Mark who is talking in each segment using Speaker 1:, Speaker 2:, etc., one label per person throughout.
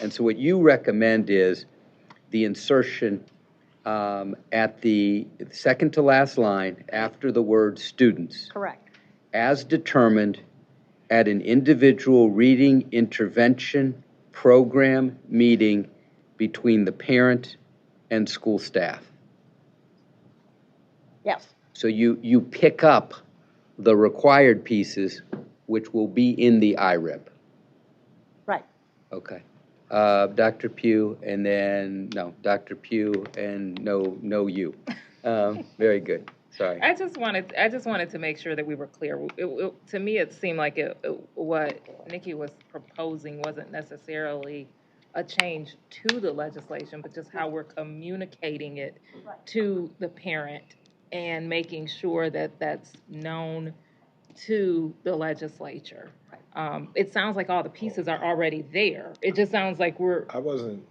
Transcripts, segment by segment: Speaker 1: And so what you recommend is the insertion um, at the second to last line after the word students,
Speaker 2: Correct.
Speaker 1: as determined at an individual reading intervention program meeting between the parent and school staff.
Speaker 2: Yes,
Speaker 1: So you, you pick up the required pieces, which will be in the E IRIP.
Speaker 2: right.
Speaker 1: Okay. Uh, Dr. Pugh, and then, no, Dr. Pugh, and no, no you. Um, Very good, sorry.
Speaker 3: I just wanted, I just wanted to make sure that we were clear. It- it- To me, it seemed like it, it- what Nikki was proposing wasn't necessarily a change to the legislation, but just how we're communicating it to the parent and making sure that that's known to the legislature. Um, It sounds like all the pieces are already there. It just sounds like we're,
Speaker 4: I wasn't,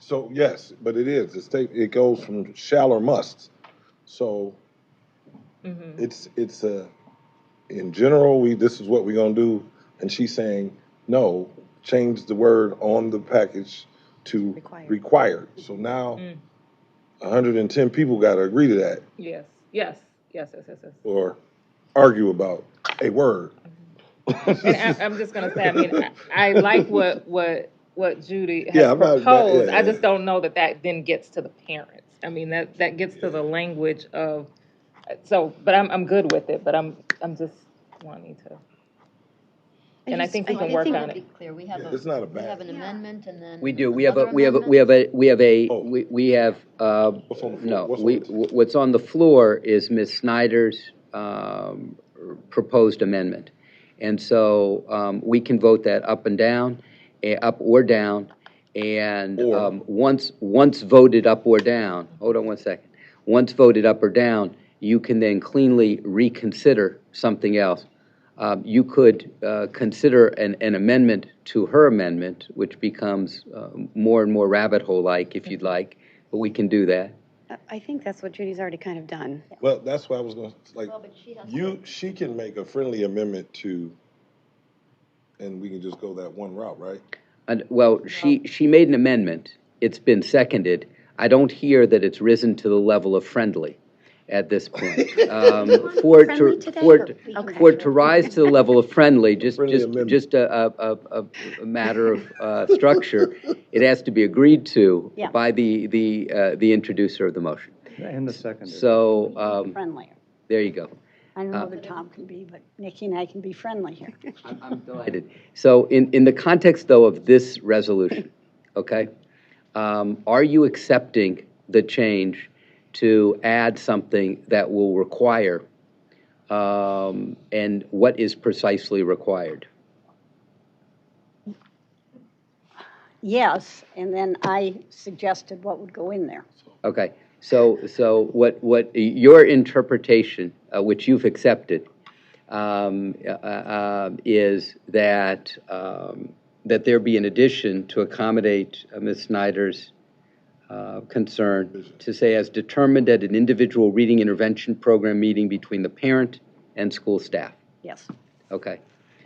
Speaker 4: so yes, but it is, it's take, it goes from shall or must. So
Speaker 3: mhm,
Speaker 4: it's, it's a, in general, we, this is what we're gonna do, and she's saying, no, change the word on the package to
Speaker 2: Required.
Speaker 4: required. So now,
Speaker 3: Mm.
Speaker 4: hundred and ten people gotta agree to that,
Speaker 3: yes, yes, yes, yes, yes, yes.
Speaker 4: or argue about a word.
Speaker 3: And I, I'm just gonna say, I mean, I, I like what, what, what Judy
Speaker 4: Yeah,
Speaker 3: has
Speaker 4: I'm not-
Speaker 3: proposed. I
Speaker 4: yeah,
Speaker 3: just
Speaker 4: yeah.
Speaker 3: don't know that that then gets to the parents. I mean, that, that gets to the language of, so, but I'm, I'm good with it, but I'm, I'm just wanting to. And I
Speaker 5: just-
Speaker 3: think we can work on
Speaker 5: I think we'll
Speaker 3: it.
Speaker 5: be clear, we have
Speaker 4: Yeah,
Speaker 5: a.
Speaker 4: it's not a
Speaker 5: We
Speaker 4: bad-
Speaker 5: have an amendment and then.
Speaker 1: We do, we have a,
Speaker 5: another
Speaker 1: we have, a we
Speaker 5: amendment?
Speaker 1: have a, we have a,
Speaker 4: Oh.
Speaker 1: we we have, uh,
Speaker 4: What's on the floor?
Speaker 1: no,
Speaker 4: What's
Speaker 1: we,
Speaker 4: on the-
Speaker 1: wh- what's on the floor is Ms. Snyder's um, proposed amendment. And so um, we can vote that up and down, eh, up or down, and
Speaker 4: Or.
Speaker 1: um, once, once voted up or down, hold on one second, once voted up or down, you can then cleanly reconsider something else. Um, You could uh, consider an an amendment to her amendment, which becomes uh, more and more rabbit hole-like, if you'd like, but we can do that.
Speaker 6: I- I think that's what Judy's already kind of done.
Speaker 4: Well, that's why I was gonna, like,
Speaker 5: Well, but she has to-
Speaker 4: You, she can make a friendly amendment to, and we can just go that one route, right?
Speaker 1: And- Well, she, she made an amendment. It's been seconded. I don't hear that it's risen to the level of friendly at this point. Um, For it
Speaker 6: Friendly
Speaker 1: to,
Speaker 6: today?
Speaker 1: for it,
Speaker 6: Okay.
Speaker 1: for it to rise to the level of friendly, just,
Speaker 4: Friendly
Speaker 1: just,
Speaker 4: amendment.
Speaker 1: just a, a- a, a, a matter of uh, structure, it has to be agreed to
Speaker 2: Yeah.
Speaker 1: by the, the, uh, the introducer of the motion.
Speaker 7: And the secondary.
Speaker 1: So, um,
Speaker 2: Friendlier.
Speaker 1: there you go.
Speaker 2: I don't know whether Tom can be, but Nikki and I can be friendly here.
Speaker 1: I'm- I'm delighted. So in, in the context, though, of this resolution, okay, um, are you accepting the change to add something that will require, um, and what is precisely required?
Speaker 2: Yes, and then I suggested what would go in there.
Speaker 1: Okay, so, so what, what, your interpretation, uh, which you've accepted, um, uh, uh, is that, um, that there be an addition to accommodate uh, Ms. Snyder's uh, concern to say as determined at an individual reading intervention program meeting between the parent and school staff.
Speaker 2: Yes.
Speaker 1: Okay,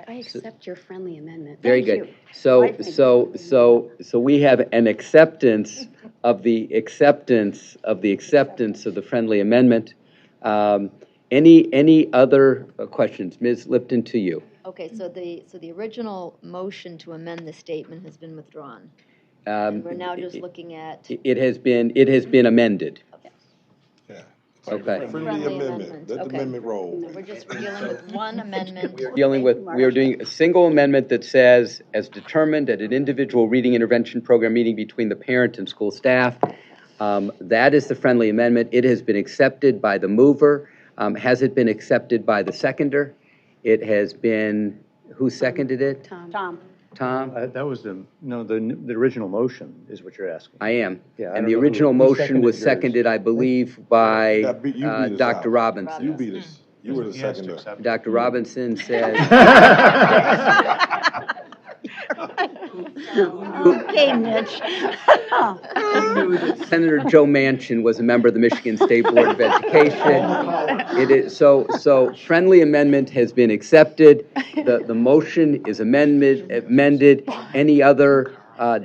Speaker 6: I accept your friendly amendment.
Speaker 1: very
Speaker 2: Thank
Speaker 1: good.
Speaker 2: you. I
Speaker 1: So,
Speaker 2: think-
Speaker 1: so, so, so we have an acceptance of the acceptance of the acceptance of the friendly amendment. Um, Any, any other uh, questions? Ms. Lipton, to you.
Speaker 5: Okay, so the, so the original motion to amend the statement has been withdrawn.
Speaker 1: Um,
Speaker 5: And we're now just looking at
Speaker 1: It it has been, it has been amended.
Speaker 4: Yeah.
Speaker 1: Okay.
Speaker 4: Friendly amendment,
Speaker 5: amendment,
Speaker 4: let the
Speaker 5: okay.
Speaker 4: amendment roll.
Speaker 5: We're just dealing with one amendment.
Speaker 1: We're dealing with, we are doing a single amendment that says, as determined at an individual reading intervention program meeting between the parent and school staff. Um, That is the friendly amendment. It has been accepted by the mover. Um, Has it been accepted by the seconder? It has been, who seconded it?
Speaker 6: Tom,
Speaker 2: Tom,
Speaker 1: Tom?
Speaker 7: Uh, That was the, no, the, the original motion is what you're asking.
Speaker 1: I am.
Speaker 7: Yeah,
Speaker 1: And
Speaker 7: I don't
Speaker 1: the
Speaker 7: know who-
Speaker 1: original
Speaker 7: who
Speaker 1: motion was
Speaker 7: seconded
Speaker 1: seconded, I believe, by
Speaker 4: Yeah, but you
Speaker 1: uh,
Speaker 4: beat us
Speaker 1: Dr.
Speaker 4: out.
Speaker 1: Robinson.
Speaker 4: You beat us, you were the
Speaker 7: He has to
Speaker 4: seconder.
Speaker 7: accept it.
Speaker 1: Dr. Robinson says,
Speaker 2: okay, Mitch.
Speaker 1: I knew that Senator Joe Manchin was a member of the Michigan State Board of Education. It is, so, so friendly amendment has been accepted. The, the motion is amended, amended. Any other, uh,